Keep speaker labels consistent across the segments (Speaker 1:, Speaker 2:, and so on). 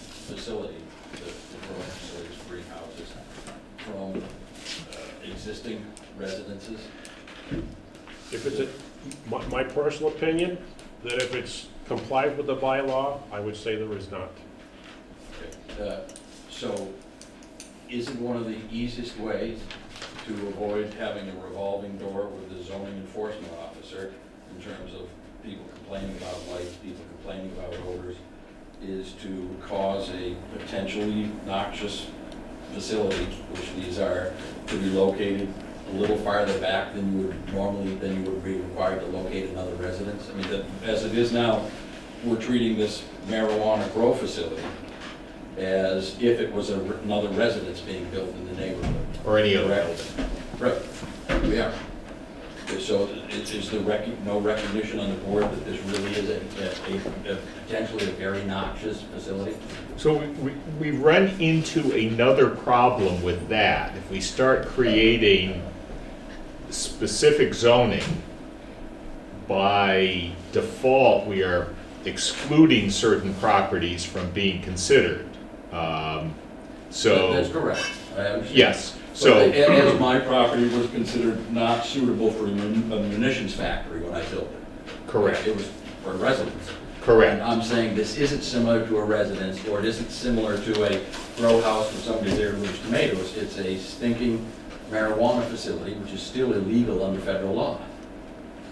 Speaker 1: facility, the the growing facility is three houses from uh, existing residences.
Speaker 2: If it's, a- my, my personal opinion, that if it's complied with the bylaw, I would say there is not.
Speaker 1: Uh, So isn't one of the easiest ways to avoid having a revolving door with the zoning enforcement officer in terms of people complaining about lights, people complaining about odors, is to cause a potentially noxious facility, which these are, to be located a little farther back than you would normally, than you would be required to locate another residence? I mean, that- as it is now, we're treating this marijuana grow facility as if it was a- another residence being built in the neighborhood.
Speaker 3: Or any other
Speaker 1: Correct.
Speaker 3: building.
Speaker 1: Right, yeah. So is, is the rec, no recognition on the board that this really is a, a, a potentially a very noxious facility?
Speaker 3: So we, we, we run into another problem with that. If we start creating specific zoning, by default, we are excluding certain properties from being considered. Um,
Speaker 1: That- That's
Speaker 3: So,
Speaker 1: correct, I understand.
Speaker 3: yes,
Speaker 1: But
Speaker 3: so.
Speaker 1: a- As my property was considered not suitable for a mun- a munitions factory when I built it.
Speaker 3: Correct,
Speaker 1: It was for residents. And
Speaker 3: correct,
Speaker 1: I'm saying this isn't similar to a residence, or it isn't similar to a grow house where somebody there moves tomatoes. It's a stinking marijuana facility, which is still illegal under federal law.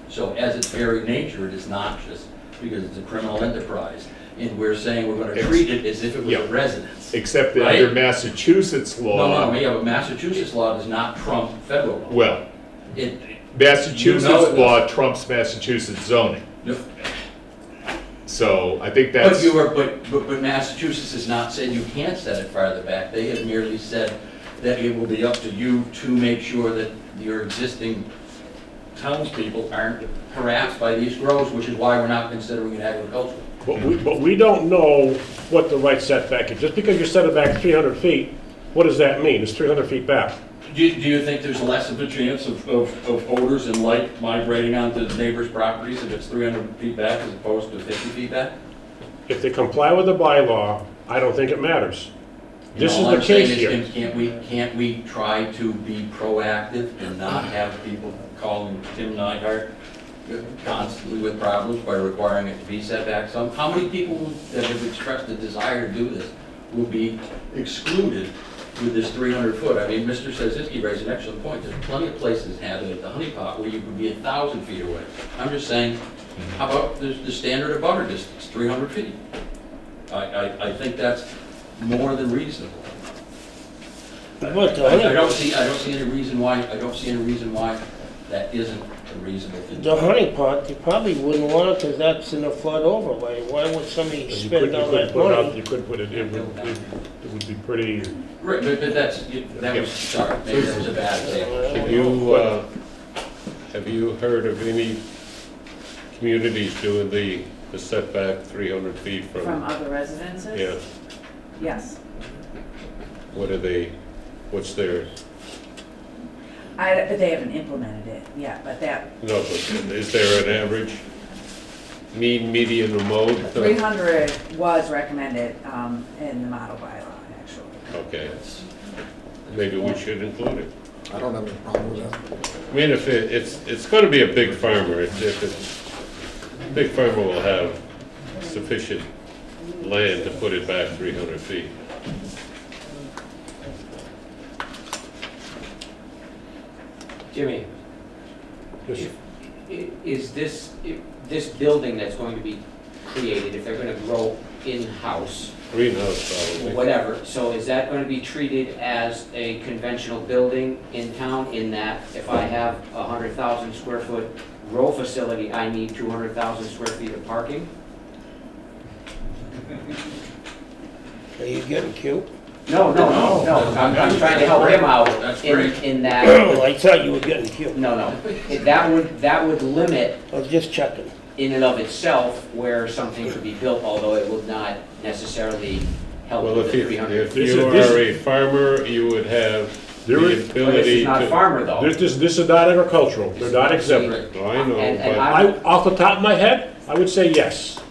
Speaker 1: So as its very nature, it is noxious, because it's a criminal enterprise, and we're saying we're gonna treat it as if it was
Speaker 3: Yeah.
Speaker 1: a residence.
Speaker 3: except that
Speaker 1: Right?
Speaker 3: under Massachusetts
Speaker 1: No, no,
Speaker 3: law,
Speaker 1: no, yeah, but Massachusetts law does not trump federal law.
Speaker 3: well,
Speaker 1: It,
Speaker 3: Massachusetts
Speaker 1: You know it
Speaker 3: law trumps Massachusetts zoning.
Speaker 1: no,
Speaker 3: So I think that's.
Speaker 1: But you are, but, but but Massachusetts has not said you can't set it farther back. They have merely said that it will be up to you to make sure that your existing townspeople aren't harassed by these grows, which is why we're not considering it agricultural.
Speaker 2: But we, but we don't know what the right setback is. Just because you set it back 300 feet, what does that mean? It's 300 feet back.
Speaker 1: Do, you- do you think there's less of a chance of, of, of odors and light migrating onto neighbors' properties if it's three hundred feet back as opposed to fifty feet back?
Speaker 2: If they comply with the bylaw, I don't think it matters.
Speaker 1: And
Speaker 2: This is
Speaker 1: all
Speaker 2: the
Speaker 1: I'm saying
Speaker 2: case
Speaker 1: is,
Speaker 2: here.
Speaker 1: can- Can't we, can't we try to be proactive and not have people calling Tim Nyhart constantly with problems by requiring it to be set back some? How many people that have expressed a desire to do this will be excluded with this 300 foot? I mean, Mr. Sazinski raised an excellent point. There's plenty of places have it at the honey pot where you could be a thousand feet away. I'm just saying, how about the, the standard of butter distance, 300 feet? I, I, I think that's more than reasonable.
Speaker 4: But
Speaker 1: I I
Speaker 4: the
Speaker 1: don't
Speaker 4: honey,
Speaker 1: see, I don't see any reason why, I don't see any reason why that isn't a reasonable thing.
Speaker 4: the honey pot, you probably wouldn't want it because that's in a flood overlay. Why would somebody
Speaker 2: You
Speaker 4: spend
Speaker 2: couldn't- you
Speaker 4: all
Speaker 2: couldn't
Speaker 4: that
Speaker 2: put it out-
Speaker 4: money?
Speaker 2: You couldn't put it, it would, it would be pretty,
Speaker 1: Right, but, but that's, you- that was, sorry, maybe that was a bad example.
Speaker 4: Uh,
Speaker 5: Have you, uh, have you heard of any communities doing the the setback 300 feet
Speaker 6: From
Speaker 5: from?
Speaker 6: other residences?
Speaker 5: Yeah,
Speaker 6: Yes.
Speaker 5: what are they, what's their,
Speaker 6: I, but they haven't implemented it yet, but that,
Speaker 5: no, but is there an average, mean, median, or mode?
Speaker 6: three hundred was recommended, um, in the model bylaw, actually.
Speaker 5: Okay, maybe we should include it.
Speaker 7: I don't have any problem with that.
Speaker 5: I mean, if it, it's, it's gonna be a big farmer, if if it's, big farmer will have sufficient land to put it back three hundred feet.
Speaker 8: Jimmy,
Speaker 2: just
Speaker 8: i- is this, i- this building that's going to be created, if they're gonna grow in-house,
Speaker 5: Greenhouse
Speaker 8: or
Speaker 5: probably.
Speaker 8: whatever, so is that gonna be treated as a conventional building in town in that if I have a hundred thousand square foot grow facility, I need two hundred thousand square feet of parking?
Speaker 4: Are you getting cute?
Speaker 8: No, no, no, no, I'm, I'm trying to help him
Speaker 1: That's
Speaker 8: out in,
Speaker 1: great.
Speaker 8: in that,
Speaker 4: I thought you were getting cute.
Speaker 8: no, no. That would, that would limit
Speaker 4: I was just checking.
Speaker 8: in and of itself where something could be built, although it would not necessarily help
Speaker 5: Well,
Speaker 8: with
Speaker 5: if
Speaker 8: the
Speaker 5: you,
Speaker 8: 300.
Speaker 5: if
Speaker 2: This
Speaker 5: you
Speaker 2: is- this-
Speaker 5: are a farmer, you would have
Speaker 2: There
Speaker 5: the
Speaker 2: is-
Speaker 8: But this
Speaker 5: ability
Speaker 8: is
Speaker 5: to.
Speaker 8: not farmer though.
Speaker 2: This, this, this is not agricultural, they're not exempt.
Speaker 1: Right.
Speaker 5: Well, Oh, I
Speaker 8: And- and
Speaker 5: know,
Speaker 2: I, off the top of my head, I would say yes.